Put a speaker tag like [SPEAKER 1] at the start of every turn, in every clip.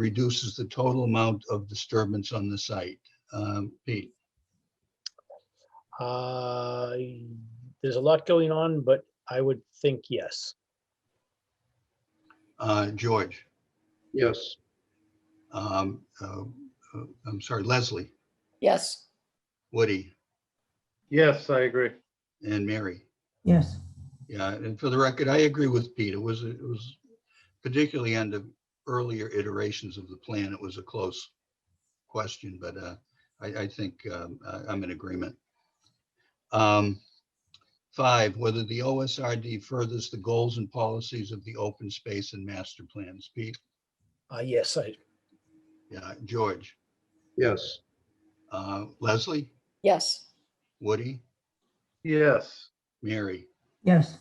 [SPEAKER 1] reduces the total amount of disturbance on the site. Um, Pete,
[SPEAKER 2] Uh, There's a lot going on, but I would think yes.
[SPEAKER 1] uh, George,
[SPEAKER 3] Yes.
[SPEAKER 1] um, uh, uh, I'm sorry, Leslie,
[SPEAKER 4] Yes,
[SPEAKER 1] Woody,
[SPEAKER 3] Yes, I agree.
[SPEAKER 1] and Mary.
[SPEAKER 5] yes,
[SPEAKER 1] Yeah, and for the record, I agree with Pete. It was, it was particularly on the earlier iterations of the plan, it was a close question, but uh, I, I think um, I- I'm in agreement. Um, Five, whether the OSRD furthers the goals and policies of the open space and master plans. Pete,
[SPEAKER 2] Uh, Yes, I,
[SPEAKER 1] yeah, George,
[SPEAKER 3] Yes.
[SPEAKER 1] uh, Leslie,
[SPEAKER 4] yes,
[SPEAKER 1] Woody,
[SPEAKER 3] Yes.
[SPEAKER 1] Mary.
[SPEAKER 5] yes,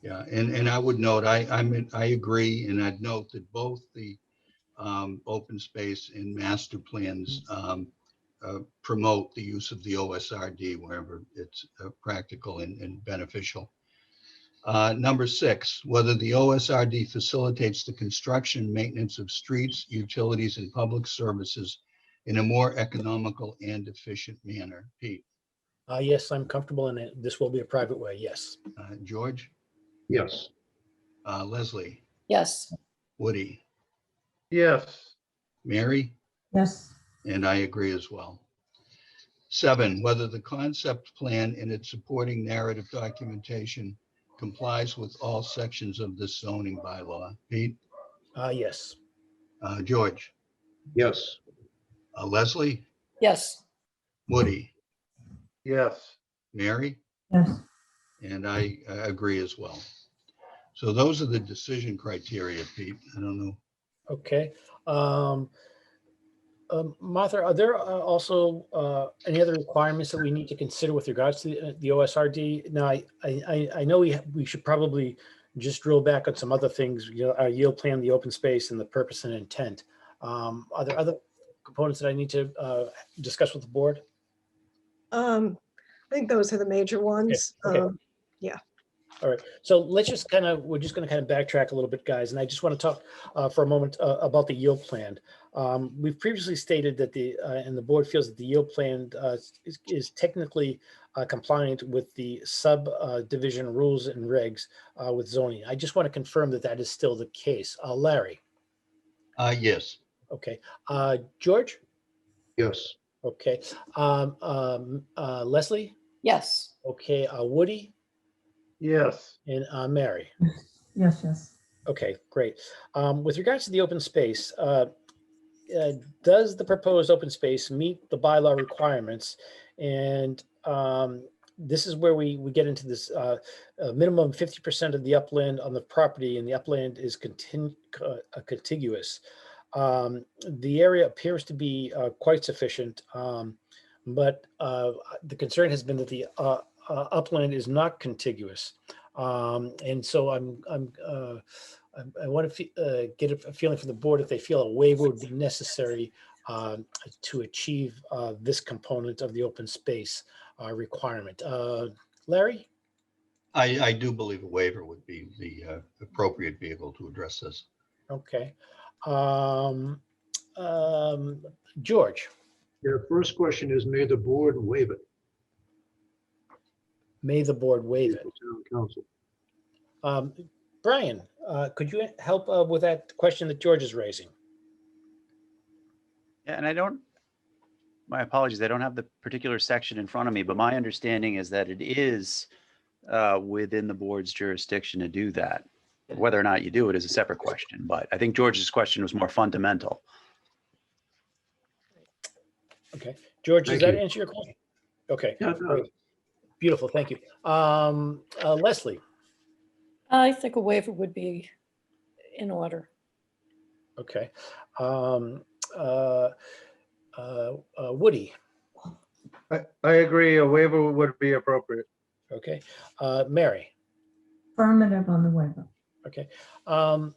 [SPEAKER 1] Yeah, and, and I would note, I, I'm, in- I agree, and I'd note that both the um, open space and master plans um, uh, promote the use of the OSRD wherever it's uh, practical and, and beneficial. Uh, Number six, whether the OSRD facilitates the construction, maintenance of streets, utilities, and public services in a more economical and efficient manner. Pete,
[SPEAKER 2] uh, yes, I'm comfortable in it. This will be a private way, yes.
[SPEAKER 1] uh, George,
[SPEAKER 3] Yes.
[SPEAKER 1] uh, Leslie,
[SPEAKER 4] yes,
[SPEAKER 1] Woody,
[SPEAKER 3] Yes.
[SPEAKER 1] Mary?
[SPEAKER 5] yes,
[SPEAKER 1] And I agree as well. Seven, whether the concept plan and its supporting narrative documentation complies with all sections of this zoning bylaw. Pete,
[SPEAKER 2] Uh, Yes,
[SPEAKER 1] uh, George,
[SPEAKER 3] Yes.
[SPEAKER 1] uh, Leslie,
[SPEAKER 4] yes,
[SPEAKER 1] Woody,
[SPEAKER 3] Yes.
[SPEAKER 1] Mary?
[SPEAKER 5] yes,
[SPEAKER 1] And I uh, agree as well. So those are the decision criteria, Pete. I don't know.
[SPEAKER 2] okay. Um, um, Martha, are there uh, also uh, any other requirements that we need to consider with regards to the- the OSRD? Now, I, I, I- I know we, ha- we should probably just drill back on some other things, you know, our yield plan, the open space and the purpose and intent. Um, Are there other components that I need to uh, discuss with the board?
[SPEAKER 6] Um, I think those are the major ones.
[SPEAKER 2] okay.
[SPEAKER 6] Um,
[SPEAKER 2] All right, so let's just kind of, we're just going to kind of backtrack a little bit, guys, and I just want to talk uh, for a moment uh, about the yield plan. Um, We've previously stated that the, uh, and the board feels that the yield plan uh, is- is technically uh, compliant with the subdivision rules and regs uh, with zoning. I just want to confirm that that is still the case. Uh, Larry,
[SPEAKER 1] Uh, yes,
[SPEAKER 2] okay. Uh, George,
[SPEAKER 3] Yes.
[SPEAKER 2] okay. Um, um, uh, Leslie,
[SPEAKER 4] yes,
[SPEAKER 2] okay. Uh, Woody
[SPEAKER 3] Yes.
[SPEAKER 2] and uh, Mary.
[SPEAKER 5] yes, yes,
[SPEAKER 2] Okay, great. Um, With regards to the open space, uh, uh, does the proposed open space meet the bylaw requirements? And um, this is where we, we get into this uh, uh, minimum 50% of the upland on the property, and the upland is contin- uh, uh, contiguous. Um, The area appears to be uh, quite sufficient, um, but uh, the concern has been that the uh, uh, upland is not contiguous. Um, And so I'm, I'm uh, I, I want to get a f- feeling from the board if they feel a waiver would be necessary um, to achieve uh, this component of the open space uh, requirement. Uh, Larry?
[SPEAKER 1] I, I do believe a waiver would be the uh, appropriate vehicle to address this.
[SPEAKER 2] Okay. Um, um, George,
[SPEAKER 3] Your first question is, may the board waive it?
[SPEAKER 2] may the board waive it.
[SPEAKER 3] Town council.
[SPEAKER 2] Um, Brian, uh, could you help uh, with that question that George is raising?
[SPEAKER 7] Yeah, and I don't, my apologies, I don't have the particular section in front of me, but my understanding is that it is uh, within the board's jurisdiction to do that. Whether or not you do it is a separate question, but I think George's question was more fundamental.
[SPEAKER 2] George, does
[SPEAKER 3] Thank
[SPEAKER 2] that
[SPEAKER 3] you.
[SPEAKER 2] answer your question? Okay,
[SPEAKER 3] Yeah, it does.
[SPEAKER 2] beautiful, thank you. Um, uh, Leslie?
[SPEAKER 4] I think a waiver would be in order.
[SPEAKER 2] Okay. Um, uh, uh, uh, Woody,
[SPEAKER 3] I, I agree. A waiver would be appropriate.
[SPEAKER 2] okay. Uh, Mary,
[SPEAKER 5] affirmative on the waiver.
[SPEAKER 2] okay. Um,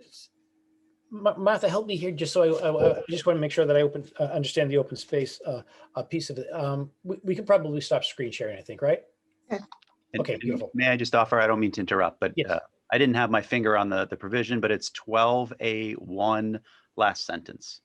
[SPEAKER 2] s- Ma- Martha, help me here, just so I, I, I just want to make sure that I open, uh, understand the open space, uh, a piece of it. Um, we, we can probably stop screen sharing, I think, right?
[SPEAKER 7] And-
[SPEAKER 2] Okay,
[SPEAKER 7] and
[SPEAKER 2] beautiful.
[SPEAKER 7] May I just offer, I don't mean to interrupt, but
[SPEAKER 2] Yes.
[SPEAKER 7] uh, I didn't have my finger on the, the provision, but it's 12A1 last sentence.